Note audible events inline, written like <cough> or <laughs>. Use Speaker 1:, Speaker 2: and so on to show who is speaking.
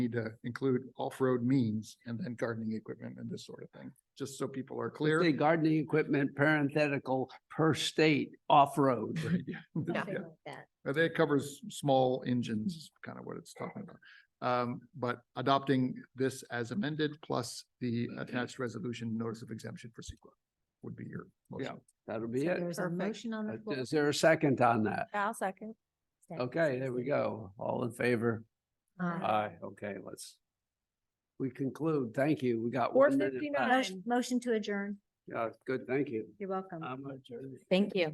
Speaker 1: need to include off-road means and then gardening equipment and this sort of thing, just so people are clear.
Speaker 2: Say gardening equipment, parenthetical, per state, off-road.
Speaker 1: <laughs> Right, yeah.
Speaker 3: something
Speaker 1: Yeah.
Speaker 3: like that.
Speaker 1: Uh, That covers small engines, is kind of what it's talking about. Um, but adopting this as amended plus the attached resolution notice of exemption for CEQA would be your motion.
Speaker 2: That'll
Speaker 3: So
Speaker 2: be it.
Speaker 3: There's a motion on the
Speaker 2: Uh,
Speaker 3: floor.
Speaker 2: Is there a second on that?
Speaker 4: I'll second.
Speaker 3: Second,
Speaker 2: Okay, there we
Speaker 3: Susan.
Speaker 2: go. All in favor?
Speaker 3: Aye.
Speaker 2: Aye, okay, let's. We conclude. Thank you. We got.
Speaker 4: Four
Speaker 2: one minute left.
Speaker 4: fifty-nine.
Speaker 3: Motion- Motion to adjourn.
Speaker 2: Yeah, good, thank you.
Speaker 3: You're welcome.
Speaker 2: I'm adjourned.
Speaker 3: Thank you.